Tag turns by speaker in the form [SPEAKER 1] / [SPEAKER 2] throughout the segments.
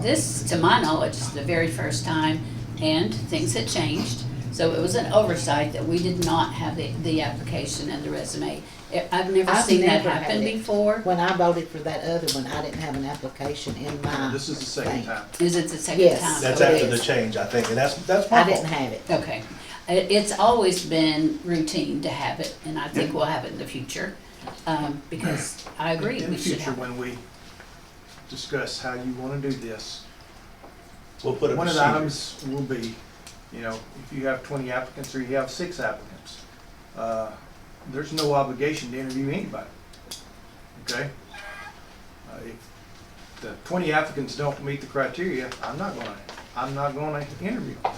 [SPEAKER 1] this, to my knowledge, is the very first time, and things had changed. So it was an oversight that we did not have the, the application and the resume. I- I've never
[SPEAKER 2] I've
[SPEAKER 1] seen that
[SPEAKER 2] never had
[SPEAKER 1] happen
[SPEAKER 2] it.
[SPEAKER 1] before.
[SPEAKER 2] When I voted for that other one, I didn't have an application in
[SPEAKER 1] Uh,
[SPEAKER 2] my.
[SPEAKER 3] This is the second
[SPEAKER 2] thing.
[SPEAKER 3] time.
[SPEAKER 1] Is it the second
[SPEAKER 2] Yes.
[SPEAKER 1] time?
[SPEAKER 3] That's
[SPEAKER 1] So it
[SPEAKER 3] after
[SPEAKER 1] is.
[SPEAKER 3] the change, I think, and that's, that's my
[SPEAKER 2] I didn't
[SPEAKER 3] fault.
[SPEAKER 2] have it.
[SPEAKER 1] Okay. It, it's always been routine to have it, and I think we'll have it in the future, um, because I agree,
[SPEAKER 3] In
[SPEAKER 1] we
[SPEAKER 3] the
[SPEAKER 1] should
[SPEAKER 3] future,
[SPEAKER 1] have.
[SPEAKER 3] when we discuss how you wanna do this,
[SPEAKER 4] We'll put a
[SPEAKER 3] one of the
[SPEAKER 4] procedure.
[SPEAKER 3] items will be, you know, if you have twenty applicants or you have six applicants, uh, there's no obligation to interview anybody, okay? Uh, If the twenty applicants don't meet the criteria, I'm not gonna, I'm not gonna interview them,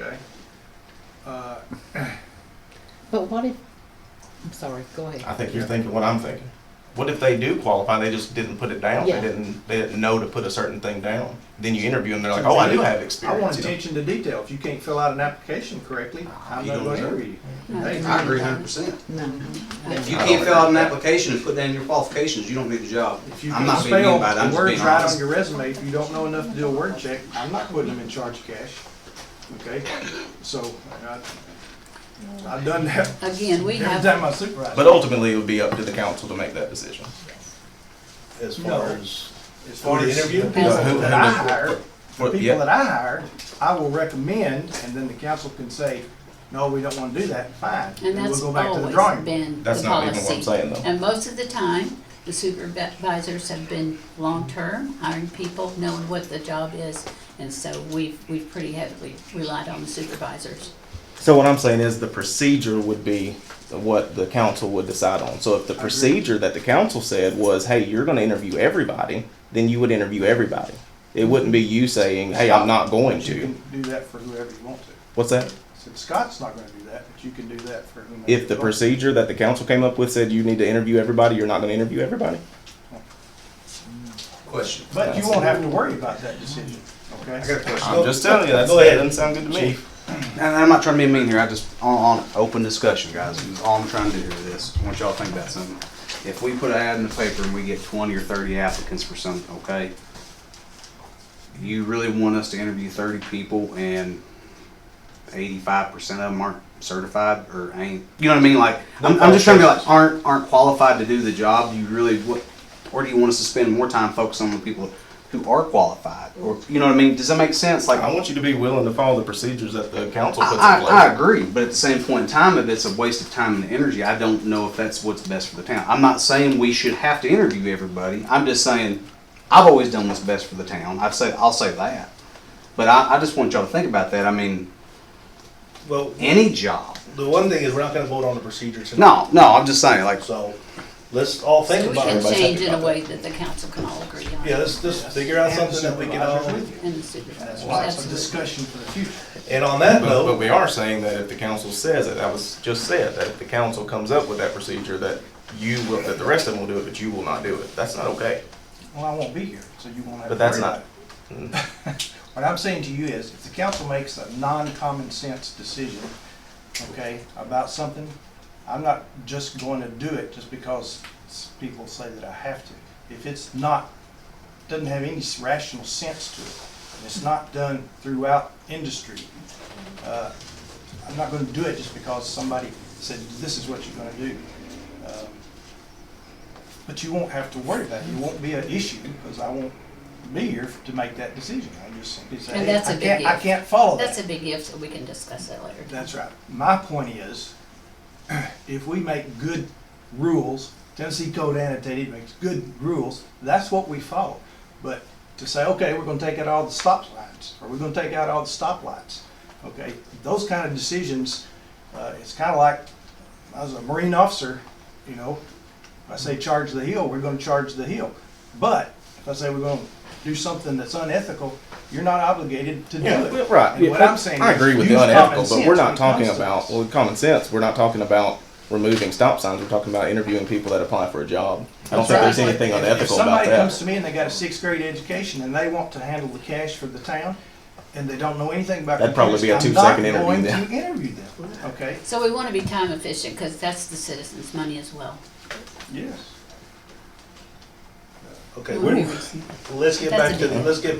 [SPEAKER 3] okay? Uh,
[SPEAKER 2] But what if, I'm sorry, go ahead.
[SPEAKER 4] I think you're thinking what I'm thinking. What if they do qualify, they just didn't put it down?
[SPEAKER 2] Yeah.
[SPEAKER 4] They didn't, they didn't know to put a certain thing down? Then you interview them, they're like, oh, I do have
[SPEAKER 3] I want
[SPEAKER 4] experience. you know?
[SPEAKER 3] attention to detail. If you can't fill out an application correctly, I'm
[SPEAKER 4] You
[SPEAKER 3] not
[SPEAKER 4] don't
[SPEAKER 3] gonna
[SPEAKER 4] know.
[SPEAKER 3] interview you.
[SPEAKER 1] No,
[SPEAKER 3] Hey,
[SPEAKER 5] I agree hundred percent.
[SPEAKER 2] No,
[SPEAKER 5] If you
[SPEAKER 4] I
[SPEAKER 5] can't
[SPEAKER 4] don't
[SPEAKER 5] fill out an
[SPEAKER 4] agree.
[SPEAKER 5] application and put down your qualifications, you don't do the job.
[SPEAKER 3] If you
[SPEAKER 5] I'm
[SPEAKER 3] can
[SPEAKER 5] not being mean
[SPEAKER 3] spell
[SPEAKER 5] by it, I'm
[SPEAKER 3] the
[SPEAKER 5] just
[SPEAKER 3] words
[SPEAKER 5] being
[SPEAKER 3] right on
[SPEAKER 5] honest.
[SPEAKER 3] your resume, if you don't know enough to do a word check, I'm not putting them in charge of cash, okay? So, I, I've done that
[SPEAKER 1] Again, we
[SPEAKER 3] every
[SPEAKER 1] have,
[SPEAKER 3] time I supervise.
[SPEAKER 4] But ultimately, it would be up to the council to make that decision.
[SPEAKER 6] as
[SPEAKER 3] No.
[SPEAKER 6] far as,
[SPEAKER 3] As far
[SPEAKER 6] the
[SPEAKER 3] as
[SPEAKER 6] interview?
[SPEAKER 3] the people
[SPEAKER 4] Yeah, who-
[SPEAKER 3] that I hire, the
[SPEAKER 4] Well,
[SPEAKER 3] people
[SPEAKER 4] yeah.
[SPEAKER 3] that I hire, I will recommend, and then the council can say, no, we don't wanna do that, fine.
[SPEAKER 1] and that's
[SPEAKER 3] we'll go back to the
[SPEAKER 1] always
[SPEAKER 3] drawing board.
[SPEAKER 1] been the
[SPEAKER 4] That's not even what I'm
[SPEAKER 1] policy.
[SPEAKER 4] saying, though.
[SPEAKER 1] And most of the time, the supervisors have been long-term, hiring people, knowing what the job is. And so we've, we've pretty heavily relied on the supervisors.
[SPEAKER 4] So what I'm saying is the procedure would be what the council would decide on. So if the procedure that the council said was, hey, you're gonna interview everybody, then you would interview everybody. It wouldn't be you saying, hey, I'm not going
[SPEAKER 3] You
[SPEAKER 4] to.
[SPEAKER 3] can do that for whoever you want to.
[SPEAKER 4] What's that?
[SPEAKER 3] So Scott's not gonna do that, but you can do that for whomever.
[SPEAKER 4] If the
[SPEAKER 3] you want.
[SPEAKER 4] procedure that the council came up with said you need to interview everybody, you're not gonna interview everybody?
[SPEAKER 5] Question.
[SPEAKER 3] But you won't have to worry about that decision, okay?
[SPEAKER 5] I got a question.
[SPEAKER 4] I'm just telling you, that's,
[SPEAKER 6] Go
[SPEAKER 4] that
[SPEAKER 6] ahead.
[SPEAKER 4] doesn't sound good to me.
[SPEAKER 5] And I'm not trying to be mean here, I just, on, on open discussion, guys, is all I'm trying to do with this, I want y'all to think about something. If we put an ad in the paper and we get twenty or thirty applicants for something, okay? You really want us to interview thirty people and eighty-five percent of them aren't certified or ain't, you know what I mean, like, I'm, I'm just trying to be like, aren't, aren't qualified to do the job, you really, what, or do you want us to spend more time focusing on the people who are qualified, or, you know what I mean, does that make sense, like?
[SPEAKER 4] I want you to be willing to follow the procedures that the council puts in
[SPEAKER 5] I, I, I
[SPEAKER 4] place.
[SPEAKER 5] agree, but at the same point in time, if it's a waste of time and energy, I don't know if that's what's best for the town. I'm not saying we should have to interview everybody. I'm just saying I've always done what's best for the town. I've said I'll say that, but I, I just want y'all to think about that. I mean,
[SPEAKER 6] well,
[SPEAKER 5] any job.
[SPEAKER 6] the one thing is we're not gonna vote on the procedure tonight.
[SPEAKER 5] No, no, I'm just saying like
[SPEAKER 6] So, let's all think
[SPEAKER 1] So we
[SPEAKER 6] about
[SPEAKER 1] can
[SPEAKER 6] it.
[SPEAKER 4] everybody's happy
[SPEAKER 1] change in
[SPEAKER 4] about
[SPEAKER 1] a
[SPEAKER 4] that.
[SPEAKER 1] way that the council can all agree on.
[SPEAKER 6] Yeah, let's, let's figure out
[SPEAKER 3] And
[SPEAKER 6] something that we can
[SPEAKER 3] supervisors
[SPEAKER 6] all,
[SPEAKER 3] with you.
[SPEAKER 1] And the
[SPEAKER 3] That's
[SPEAKER 1] supervisors,
[SPEAKER 3] why it's a
[SPEAKER 1] absolutely.
[SPEAKER 3] discussion for the future.
[SPEAKER 6] and on that
[SPEAKER 4] But, but
[SPEAKER 6] note,
[SPEAKER 4] we are saying that if the council says it, that was just said, that if the council comes up with that procedure, that you will, that the rest of them will do it, but you will not do it. That's not okay.
[SPEAKER 3] Well, I won't be here, so you won't have. to
[SPEAKER 4] But that's
[SPEAKER 3] worry
[SPEAKER 4] not,
[SPEAKER 3] about it. What I'm saying to you is, if the council makes a non-common sense decision, okay, about something, I'm not just going to do it just because s- people say that I have to. If it's not, doesn't have any s- rational sense to it, and it's not done throughout industry, uh, I'm not going to do it just because somebody said, this is what you're going to do. Um, But you won't have to worry about it. It won't be an issue because I won't be here to make that decision. I just simply say,
[SPEAKER 1] And that's
[SPEAKER 3] "Hey,
[SPEAKER 1] a
[SPEAKER 3] I can't,
[SPEAKER 1] big
[SPEAKER 3] I
[SPEAKER 1] if."
[SPEAKER 3] can't follow
[SPEAKER 1] That's a
[SPEAKER 3] that.
[SPEAKER 1] big if, so we can discuss that later.
[SPEAKER 3] That's right. My point is, if we make good rules, Tennessee Code Annotated makes good rules, that's what we follow. But to say, okay, we're going to take out all the stop signs, or we're going to take out all the stoplights, okay? Those kind of decisions, uh, it's kind of like, I was a Marine officer, you know, if I say charge the hill, we're gonna charge the hill. But if I say we're gonna do something that's unethical, you're not obligated to do
[SPEAKER 4] Yeah,
[SPEAKER 3] it.
[SPEAKER 4] right.
[SPEAKER 3] And what
[SPEAKER 4] Yeah,
[SPEAKER 3] I'm saying
[SPEAKER 4] I
[SPEAKER 3] is
[SPEAKER 4] agree with
[SPEAKER 3] use
[SPEAKER 4] the unethical,
[SPEAKER 3] common
[SPEAKER 4] but we're
[SPEAKER 3] sense when
[SPEAKER 4] not
[SPEAKER 3] it
[SPEAKER 4] talking
[SPEAKER 3] comes to
[SPEAKER 4] about,
[SPEAKER 3] this.
[SPEAKER 4] well, common sense, we're not talking about removing stop signs, we're talking about interviewing people that apply for a job. I don't think there's
[SPEAKER 3] Right.
[SPEAKER 4] anything
[SPEAKER 3] If-
[SPEAKER 4] unethical
[SPEAKER 3] If
[SPEAKER 4] about
[SPEAKER 3] somebody comes
[SPEAKER 4] that.
[SPEAKER 3] to me and they got a sixth grade education and they want to handle the cash for the town and they don't know anything about
[SPEAKER 4] That'd probably be a
[SPEAKER 3] computers, I'm
[SPEAKER 4] two-second
[SPEAKER 3] not
[SPEAKER 4] interview
[SPEAKER 3] going
[SPEAKER 4] then.
[SPEAKER 3] to interview them, okay?
[SPEAKER 1] So we want to be time efficient because that's the citizens' money as well.
[SPEAKER 3] Yes.
[SPEAKER 6] okay,
[SPEAKER 1] We wanna
[SPEAKER 6] we're,
[SPEAKER 1] be reasonable.
[SPEAKER 6] let's get
[SPEAKER 1] That's
[SPEAKER 6] back
[SPEAKER 1] a
[SPEAKER 6] to, the-
[SPEAKER 1] big-
[SPEAKER 6] let's get